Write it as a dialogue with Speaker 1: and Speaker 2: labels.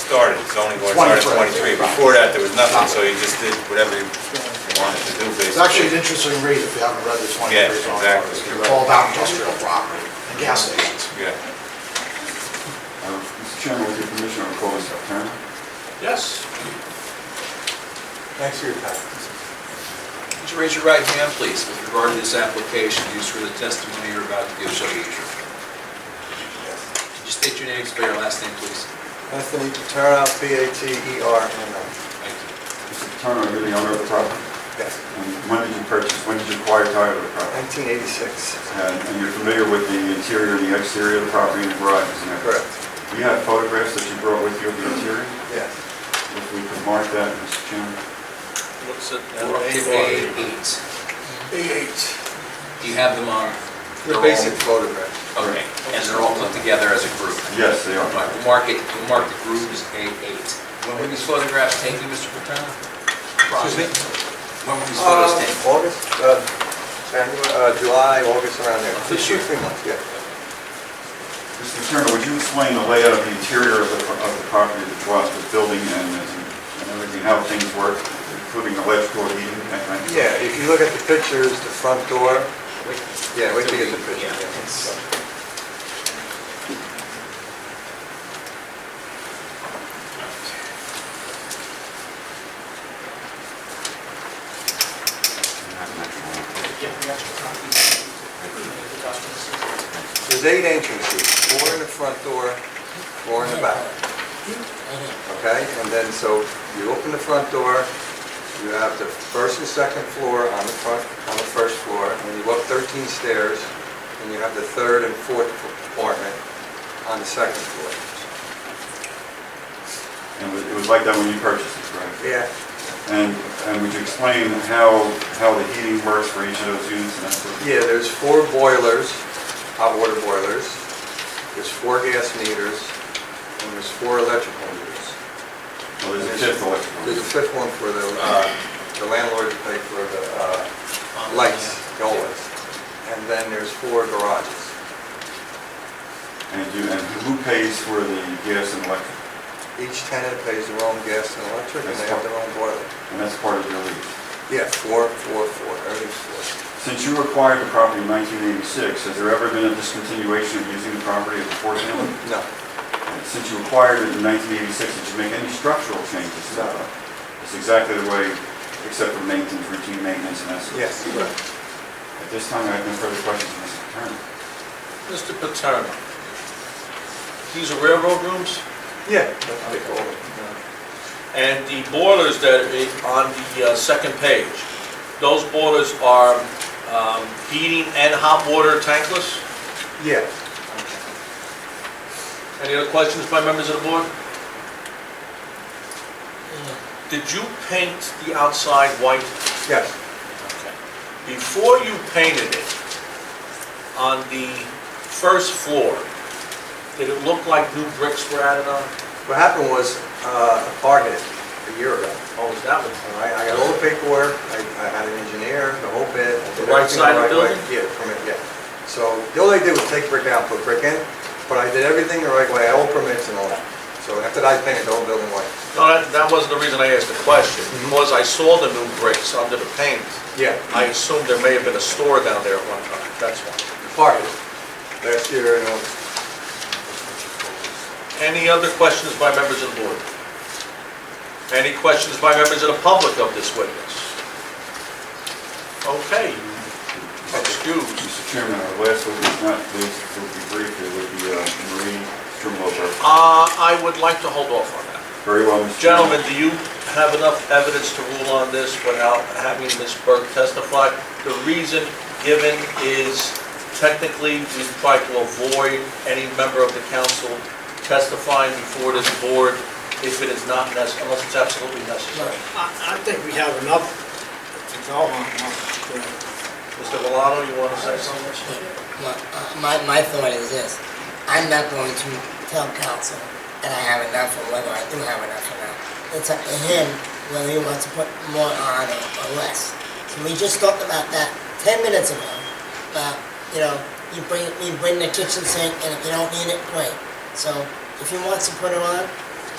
Speaker 1: started, zoning board started at 23. Before that, there was nothing, so you just did whatever you wanted to do,
Speaker 2: It's actually an interesting
Speaker 1: basically.
Speaker 2: read if you haven't read the 20
Speaker 1: Yeah,
Speaker 2: years on it.
Speaker 1: exactly.
Speaker 2: It's all about industrial property and gas stations.
Speaker 1: Yeah.
Speaker 3: Uh, Mr. Chairman, with your permission, I'll call this Turner.
Speaker 4: Yes.
Speaker 5: Thanks for your time.
Speaker 4: Would you raise your right hand, please, with regard to this application, you swear the testimony you're about to give shall be the truth? Could you state your name, spell your last name, please?
Speaker 5: Anthony Paterno, E P-A-T-E-R-N-O.
Speaker 4: Thank you.
Speaker 3: Mr. Turner, you're the owner of the property.
Speaker 5: Yes,
Speaker 3: And When did you purchase, when did you acquire title of the property?
Speaker 5: 1986.
Speaker 3: And and you're familiar with the interior and the exterior of the property and the garage, isn't that correct? Do you have photographs that you brought with you of the interior?
Speaker 5: Yes.
Speaker 3: If we could mark that, Mr. Chairman.
Speaker 4: What's it?
Speaker 2: E
Speaker 4: eight.
Speaker 5: A8.
Speaker 4: Do you have them on?
Speaker 5: The
Speaker 4: they're
Speaker 5: basic
Speaker 4: all-
Speaker 5: photograph.
Speaker 4: Okay, and they're all put together as a group?
Speaker 3: Yes, they
Speaker 4: All
Speaker 3: are.
Speaker 4: right, we'll mark it, we'll mark the group as A8. When were these photographs taken, Mr. Paterno?
Speaker 5: Excuse me?
Speaker 4: When were these photos taken?
Speaker 5: August, uh, January, uh, July, August, around there.
Speaker 4: This
Speaker 5: Two,
Speaker 4: year.
Speaker 5: Three months, yeah.
Speaker 3: Mr. Turner, would you explain the layout of the interior of the of the property, the garage, the building and and everything, how things work, including electrical, heating, that kind of thing?
Speaker 5: Yeah, if you look at the pictures, the front door, yeah, wait till you get the picture.
Speaker 4: Yeah.
Speaker 5: yeah. So, There's eight entrances, four in the front door, four in the back. Okay, and then, so you open the front door, you have the first and second floor on the front, on the first floor, and you go up 13 stairs, and you have the third and fourth apartment on the second floor.
Speaker 3: And it was- it was like that when you purchased it, correct?
Speaker 5: Yeah.
Speaker 3: And, and would you explain how, how the heating works for each of those units and that sort of thing?
Speaker 5: Yeah, there's four boilers, hot water boilers, there's four gas meters, and there's four electrical meters.
Speaker 3: Well, there's a
Speaker 5: There's
Speaker 3: fifth
Speaker 5: a
Speaker 3: electrical.
Speaker 5: fifth one for the, uh, the landlord to pay for the uh, lights, always. And then there's four garages.
Speaker 3: And you, and who pays for the gas and electric?
Speaker 5: Each tenant pays their own gas and electric, and they have their own boiler.
Speaker 3: And that's part of your lease.
Speaker 5: Yeah, four, four, four, everything's four.
Speaker 3: Since you acquired the property in 1986, has there ever been a discontinuation of using the property as a four-family?
Speaker 5: No,
Speaker 3: Since you acquired it in 1986, did you make any structural changes to that? It's exactly the way, except for maintenance, routine maintenance and that sort of
Speaker 5: yes,
Speaker 3: thing.
Speaker 5: correct.
Speaker 3: At this time, I have no further questions, Mr. Attorney.
Speaker 4: Mr. Paterno, these are railroad rooms?
Speaker 5: yeah, that's big boiler.
Speaker 6: And the boilers that are on the uh, second page, those boilers are um, heating and hot water tankless?
Speaker 5: Yeah,
Speaker 6: Any other questions by members of the board? Did you paint the outside white?
Speaker 5: yes,
Speaker 6: Before you painted it, on the first floor, did it look like new bricks were added on?
Speaker 5: what happened was, uh, a car hit a year ago.
Speaker 6: Oh, is that what?
Speaker 5: All right, I got all the paperwork, I, I had an engineer, the whole bit. I did
Speaker 6: The right
Speaker 5: everything
Speaker 6: side of the
Speaker 5: right way.
Speaker 6: building?
Speaker 5: Yeah, permit, yeah. So, the only thing I did was take brick out, put brick in, but I did everything the right way, all permits and all that. So after that, I painted the whole building white.
Speaker 6: No, that- that wasn't the reason I asked the question, because I saw the new bricks under the paint.
Speaker 5: Yeah,
Speaker 6: I assume there may have been a store down there at one time, that's why.
Speaker 5: party, last year, and all.
Speaker 6: Any other questions by members of the board? Any questions by members of the public of this witness? Okay, excuse.
Speaker 3: Mr. Chairman, our last witness, not least, will be brief, it would be uh, Marie Strumelober.
Speaker 6: Uh, I would like to hold off on that.
Speaker 3: Very well, Mr. Chairman.
Speaker 6: Gentlemen, do you have enough evidence to rule on this without having Ms. Burke testify? The reason given is technically we've tried to avoid any member of the council testifying before this board if it is not necessary, unless it's absolutely necessary.
Speaker 7: I, I think we have enough to go on.
Speaker 6: Mr. Valado, you want to say something?
Speaker 8: Well, uh, My, my thought is this, I'm not going to tell council that I have enough or whether I do have enough or not. It's up to him whether he wants to put more on or or less. So we just talked about that ten minutes ago, about, you know, you bring, you bring the kitchen sink and if you don't need it, great. So if he wants to put it on,